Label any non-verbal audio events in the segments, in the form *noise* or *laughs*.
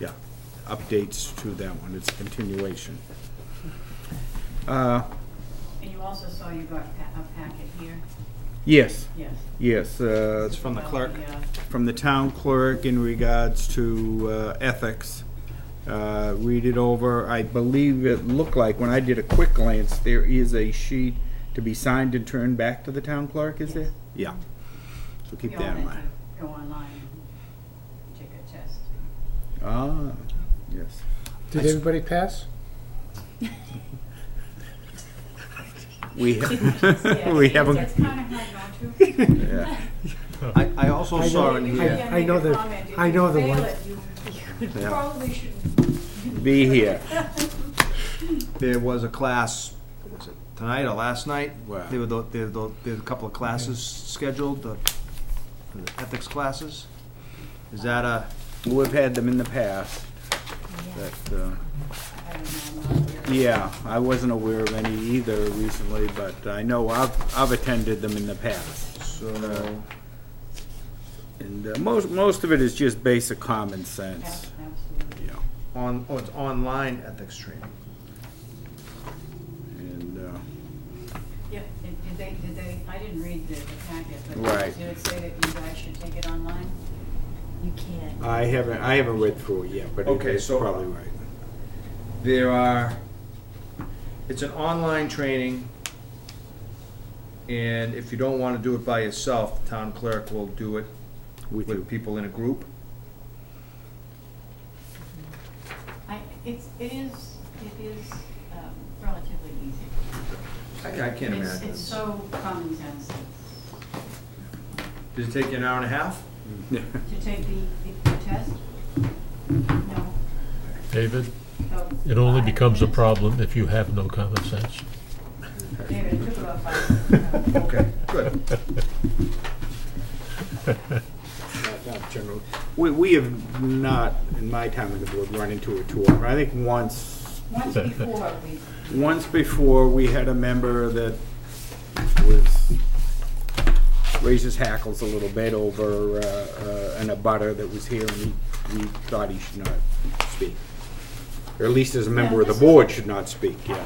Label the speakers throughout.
Speaker 1: Yeah, updates to that one, it's a continuation. Uh,
Speaker 2: And you also saw you got pa- a packet here,
Speaker 1: Yes,
Speaker 2: yes.
Speaker 1: yes, uh, it's from the
Speaker 2: About
Speaker 1: clerk,
Speaker 2: uh,
Speaker 1: from the town clerk in regards to uh, ethics. Uh, Read it over, I believe it looked like, when I did a quick glance, there is a sheet to be signed and turned back to the town clerk, is there? Yeah, so keep
Speaker 2: you all
Speaker 1: that in
Speaker 2: had
Speaker 1: mind.
Speaker 2: to Go online and take
Speaker 1: *laughs*
Speaker 2: a test. *laughs*
Speaker 1: Ah, yes.
Speaker 3: Did everybody pass?
Speaker 1: We, *laughs*
Speaker 2: Yeah,
Speaker 1: we
Speaker 2: it's- It's
Speaker 1: haven't,
Speaker 2: kind of hard
Speaker 1: *laughs*
Speaker 2: not to.
Speaker 1: yeah.
Speaker 4: I, I also
Speaker 3: I
Speaker 4: saw
Speaker 3: don't-
Speaker 4: in
Speaker 2: You
Speaker 3: I-
Speaker 4: here,
Speaker 2: can't
Speaker 3: I
Speaker 2: make
Speaker 3: know
Speaker 2: a
Speaker 3: the-
Speaker 2: comment. If
Speaker 3: I
Speaker 2: you
Speaker 3: know the
Speaker 2: fail
Speaker 3: one.
Speaker 2: it, you- You
Speaker 1: *laughs* Yeah.
Speaker 2: probably should.
Speaker 1: Be
Speaker 2: *laughs*
Speaker 1: here.
Speaker 4: there was a class, was it tonight or last night?
Speaker 1: Wow.
Speaker 4: There were, tho- there were, tho- there were a couple of classes scheduled, the the ethics classes. Is that a,
Speaker 1: We've had them in the past. That, uh,
Speaker 2: I don't know, I'm not here.
Speaker 1: yeah, I wasn't aware of any either recently, but I know I've, I've attended them in the past.
Speaker 4: so,
Speaker 1: And uh, most, most of it is just basic common sense,
Speaker 2: Absolutely.
Speaker 1: you know.
Speaker 4: on, oh, it's online ethics training?
Speaker 1: And, uh,
Speaker 2: Yeah, did did they, did they, I didn't read the the packet, but
Speaker 1: Right.
Speaker 2: did it say that you guys should take it online?
Speaker 5: You can't.
Speaker 1: I haven't, I haven't read through it yet, but it-
Speaker 4: Okay,
Speaker 1: it's
Speaker 4: so-
Speaker 1: probably *laughs* right.
Speaker 4: There are, it's an online training, and if you don't want to do it by yourself, the town clerk will do it
Speaker 1: With you.
Speaker 4: with people in a group.
Speaker 2: I, it's, it is, it is um, relatively easy.
Speaker 4: I I can't
Speaker 2: It's-
Speaker 4: imagine.
Speaker 2: It's so common sense
Speaker 4: Does it take you an hour and a half?
Speaker 2: to take the, the test. No.
Speaker 6: David,
Speaker 2: so
Speaker 6: it only
Speaker 2: five
Speaker 6: becomes a
Speaker 2: minutes.
Speaker 6: problem if you have no common sense.
Speaker 2: David, it took about five. minutes.
Speaker 4: *laughs* Okay, good.
Speaker 1: Not- not general. We, we have not, in my time on the board, run into it too often. I think once
Speaker 2: Once before, we,
Speaker 1: Once before, we had a member that was, raised his hackles a little bit over uh, uh, an abutter that was here, and he, we thought he should not speak. Or at least as a member of the board should not speak, yeah.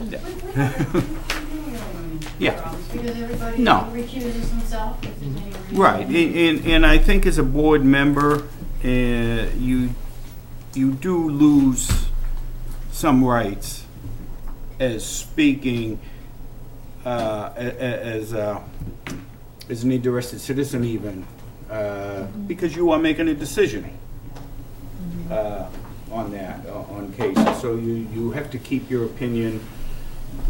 Speaker 2: we, we don't we don't really run into
Speaker 1: Yeah.
Speaker 2: problems because everybody
Speaker 1: No.
Speaker 2: recuses himself if there's any reason.
Speaker 1: Right, and, and- and I think as a board member, uh, you, you do lose some rights as speaking, uh, a- a- as, uh, as an interested citizen even, uh, because you are making a decision uh, on that, o- on cases. So you, you have to keep your opinion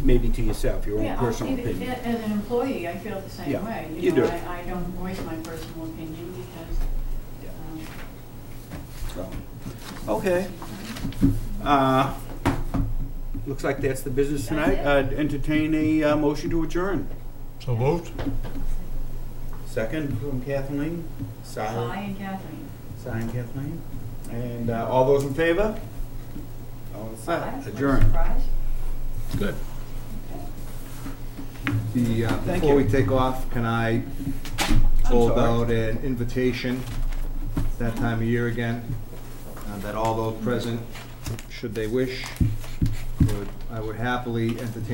Speaker 1: maybe to yourself, your own
Speaker 2: Yeah,
Speaker 1: personal
Speaker 2: even-
Speaker 1: opinion.
Speaker 2: a- As an employee, I feel the
Speaker 1: Yeah,
Speaker 2: same way.
Speaker 1: you do.
Speaker 2: know, I, I don't voice my personal opinion because,
Speaker 1: Yeah.
Speaker 2: um,
Speaker 1: So, okay. Uh, Looks like that's the business tonight.
Speaker 2: That's
Speaker 1: Uh, Entertain a uh, motion to adjourn.
Speaker 6: *laughs* So moved?
Speaker 1: Second from Kathleen.
Speaker 2: I
Speaker 1: Sign.
Speaker 2: um, and Kathleen.
Speaker 1: Sign Kathleen. And uh, all those in favor? All in
Speaker 2: Aye,
Speaker 1: favor?
Speaker 2: what a
Speaker 1: Adjourn.
Speaker 2: surprise.
Speaker 6: Good.
Speaker 4: The, uh,
Speaker 1: Thank
Speaker 4: before we
Speaker 1: you.
Speaker 4: take off, can I hold
Speaker 1: sorry.
Speaker 4: out an invitation, It's that time of year again, uh, that all those present, should they wish, would, I would happily entertain